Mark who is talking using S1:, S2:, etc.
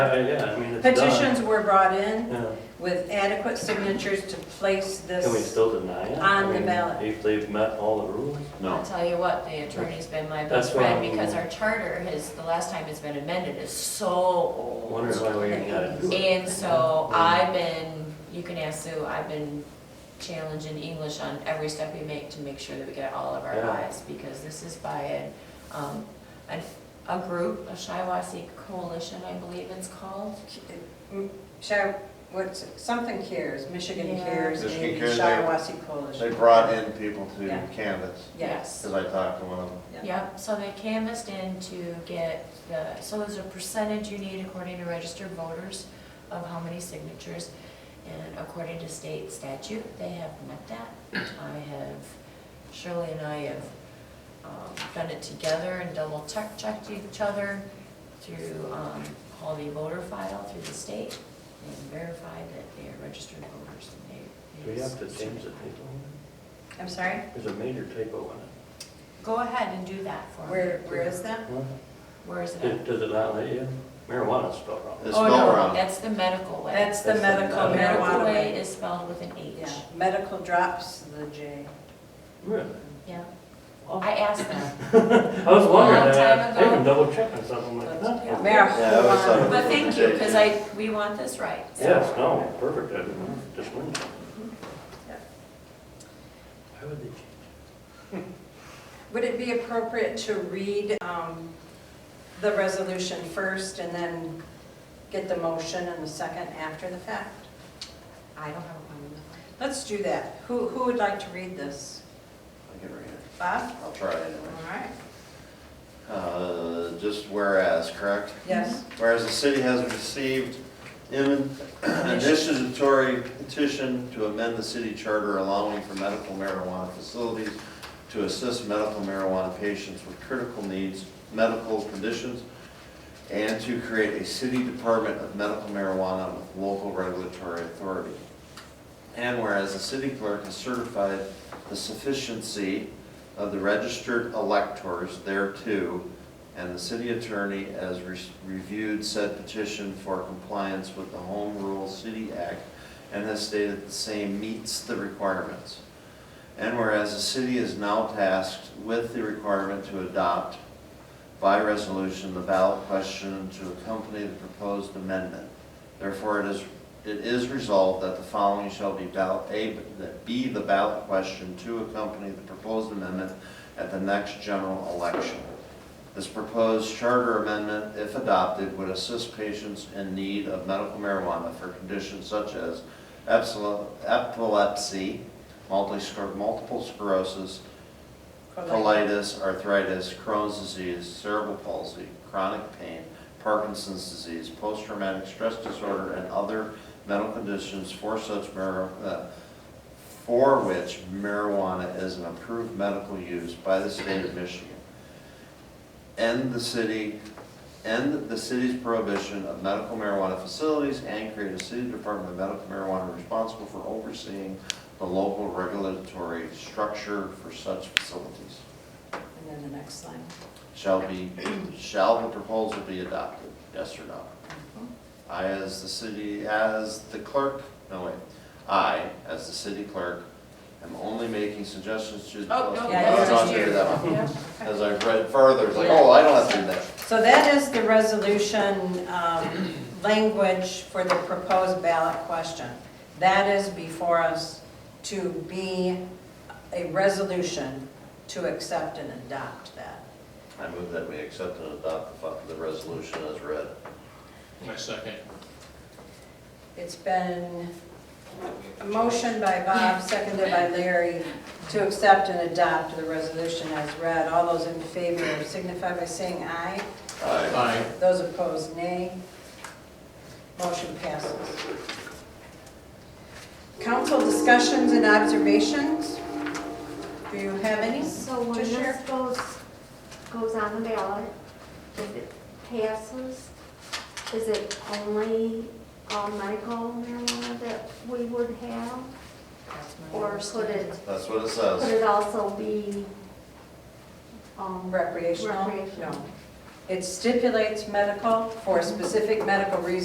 S1: Uh, Yeah, I mean, it's done.
S2: Petitions were brought in
S1: Yeah.
S2: with adequate signatures to place
S1: Can we
S2: this.
S1: still deny it?
S2: On
S1: I
S2: the
S1: mean,
S2: ballot.
S1: If they've met all the rules?
S3: I'll
S4: No,
S3: tell you what, the attorney's been my best
S1: That's what
S3: friend
S1: I'm-
S3: because our charter has, the last time it's been amended is so
S1: I
S3: old.
S1: wonder why we even gotta do it.
S3: And so I've been, you can ask Sue, I've been challenging English on every step we make to make sure that we get all of our
S1: Yeah.
S3: eyes because this is by a, um, a, a group, a Shiawassee Coalition, I believe it's called.
S2: Show, what's, it? something cares, Michigan
S3: Yeah.
S2: cares,
S4: Michigan
S2: maybe
S4: Cares, they-
S2: Shiawassee
S4: they
S2: Coalition.
S4: brought in people to
S2: Yeah.
S4: canvas,
S2: Yes.
S4: because I talked to one of them.
S3: Yep, so they canvassed in to get the, so there's a percentage you need according to registered voters of how many signatures. And according to state statute, they have met that. I have, Shirley and I have um, done it together and double check, checked each other through um, Holiday voter file through the state and verified that they are registered voters and they.
S1: Do we have to change the typo?
S2: I'm sorry,
S1: There's a major typo in
S3: Go ahead and do that for me.
S2: where, where is that?
S1: it.
S3: Where is it at?
S1: Does- Does it not let you? Marijuana's spelled wrong.
S4: It's
S3: Oh,
S4: spelled
S3: no,
S4: wrong.
S3: That's the medical way.
S2: That's the
S1: That's the
S2: medical
S1: medical
S3: Medical
S2: marijuana
S3: way
S2: way.
S3: is spelled with an H.
S2: Yeah, medical drops the J.
S1: Really?
S3: Yeah.
S1: Oh.
S3: I asked them.
S1: I was wondering,
S3: Long time
S1: I I
S3: ago.
S1: even double checked on something like
S2: That's- yeah,
S1: that.
S4: Yeah, I always thought it
S2: Marijuana.
S3: But thank you, because I, we want this right. so.
S1: Yes, no, perfect, I just wondered.
S2: Yeah.
S1: Why would they change?
S2: Would it be appropriate to read um, the resolution first and then get the motion and the second after the fact?
S3: I don't have a problem with
S2: Let's do that. Who, who would like to read this?
S4: I can read it.
S2: Bob?
S4: I'll try it
S2: All
S4: anyway.
S2: right.
S4: Uh, Just whereas, correct?
S2: Yes.
S4: Whereas the city has received an initiatory petition to amend the city charter allowing for medical marijuana facilities to assist medical marijuana patients with critical needs, medical conditions, and to create a city department of medical marijuana with local regulatory authority. And whereas the city clerk has certified the sufficiency of the registered electors thereto, and the city attorney has re- reviewed said petition for compliance with the Home Rule City Act and has stated the same meets the requirements. And whereas the city is now tasked with the requirement to adopt by resolution the ballot question to accompany the proposed amendment. Therefore, it is, it is resolved that the following shall be ballot, A, that be the ballot question to accompany the proposed amendment at the next general election. This proposed charter amendment, if adopted, would assist patients in need of medical marijuana for conditions such as epsil- epilepsy, multi- scler- multiple sclerosis, colitis, arthritis, Crohn's disease, cerebral palsy, chronic pain, Parkinson's disease, post-traumatic stress disorder, and other mental conditions for such mar- uh, for which marijuana is an approved medical use by the state of Michigan. End the city, end the city's prohibition of medical marijuana facilities and create a city department of medical marijuana responsible for overseeing the local regulatory structure for such facilities.
S2: And then the next line.
S4: Shall be, shall the proposal be adopted, yes or no? I as the city, as the clerk, no wait, I as the city clerk am only making suggestions to. the
S3: Oh, no,
S2: Yeah,
S3: that's
S2: no,
S3: just
S4: I'll do
S3: you.
S4: that one.
S3: Yeah.
S4: As I read further, it's like, oh, I don't have to do that.
S2: So that is the resolution um, language for the proposed ballot question. That is before us to be a resolution to accept and adopt that.
S4: I move that we accept and adopt the, fu- the resolution as read.
S5: My second.
S2: It's been a motion by Bob, seconded by Larry, to accept and adopt the resolution as read. All those in favor signify by saying aye.
S4: Aye.
S5: Aye.
S2: Those opposed, nay. Motion passes. Council discussions and observations? Do you have any
S6: So
S2: to
S6: when this
S2: share?
S6: goes, goes on the ballot, if it passes, is it only uh, medical marijuana that we would have?
S3: That's my
S6: Or could
S3: understanding.
S6: it,
S4: That's what it
S6: could
S4: says.
S6: it also be um,
S2: Recreational?
S6: recreational?
S2: No. It stipulates medical for specific medical reasons